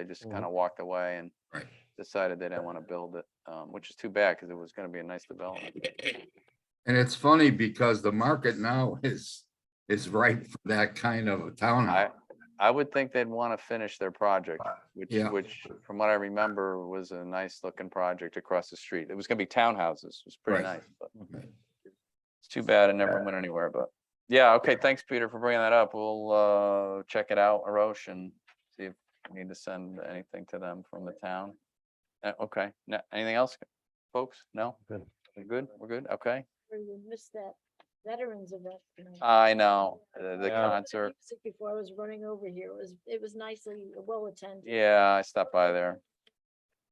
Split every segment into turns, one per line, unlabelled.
They just
Mhm.
kind of walked away and
Mm-hmm. Right.
decided they didn't want to build it, um, which is too bad because it was going to be a nice development.
And it's funny because the market now is, is ripe for that kind of a
I,
townhouse.
I would think they'd want to finish their project, which,
Uh, Yeah.
which from what I remember was a nice looking project across the street. It was going to be townhouses. It was pretty
Right. Mm.
nice, but
Okay.
it's too bad it never went anywhere, but yeah, okay, thanks, Peter, for bringing that up. We'll, uh, check it out, Arosh, and see if we need to send anything to them from the town. Uh, okay, no, anything else, folks? No?
Good.
We're good? We're good? Okay.
We missed that veterans event. tonight.
I know, Oh, the the
Yeah.
concert.
Music Before I was running over here, it was, it was nicely, well attended.
Yeah, I stopped by there.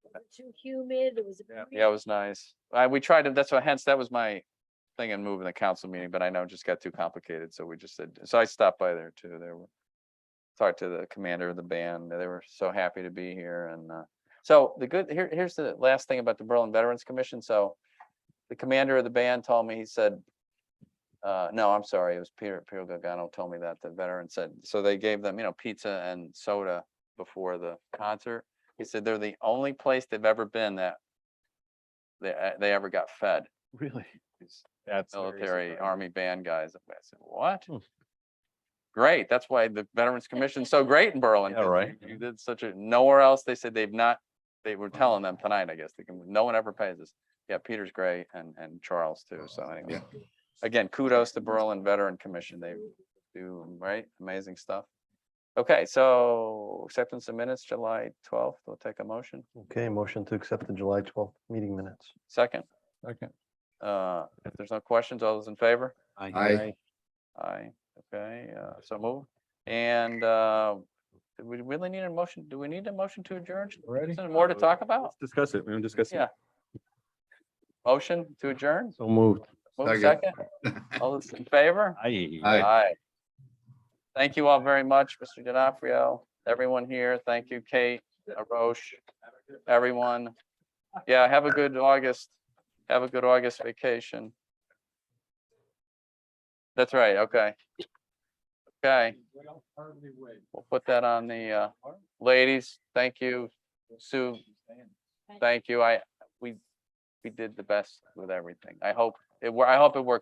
wasn't Too humid, it was. a
Yeah, it was nice. I, we tried to, that's why hence, that was my thing in moving the council meeting, but I know it just got too complicated, so we just said, so I stopped by there too, there were. Talked to the commander of the band, they were so happy to be here and, uh, so the good, here, here's the last thing about the Berlin Veterans Commission, so. The commander of the band told me, he said. Uh, no, I'm sorry, it was Peter, Peter Gagano told me that, the veteran said, so they gave them, you know, pizza and soda before the concert. He said they're the only place they've ever been that they, uh, they ever got fed.
Really?
These
That's very
military,
surprising.
army band guys. I said, what?
Hmm.
Great. That's why the Veterans Commission's so great in Berlin.
Yeah,
'cause
right.
You you did such a, nowhere else. They said they've not, they were
Hmm.
telling them tonight, I guess, they can, no one ever pays us. Yeah, Peter's great and, and Charles too. So anyway. Again, kudos to Berlin Veteran Commission. They do, right? Amazing stuff. Okay, so acceptance of minutes, July twelfth. We'll take a motion.
Okay, motion to accept the July twelfth meeting minutes.
Second.
Second.
Uh, if there's no questions, all those in favor?
Aye.
Aye, okay, uh, so move. And, uh, do we really need a motion? Do we need a motion to adjourn?
Ready?
Is there more to talk about?
Discuss it. We haven't discussed
it. Yeah. Motion to adjourn?
So moved.
Move second.
Second.
All those in favor?
Aye.
Aye.
Aye. Thank you all very much, Mr. D'Onofrio, everyone here. Thank you, Kate, Arosh, everyone. Yeah, have a good August. Have a good August vacation. That's right, okay. Okay. We'll put that on the, uh, ladies, thank you. Sue, thank you. I, we, we did the best with everything. I hope, it. wor- I hope it worked.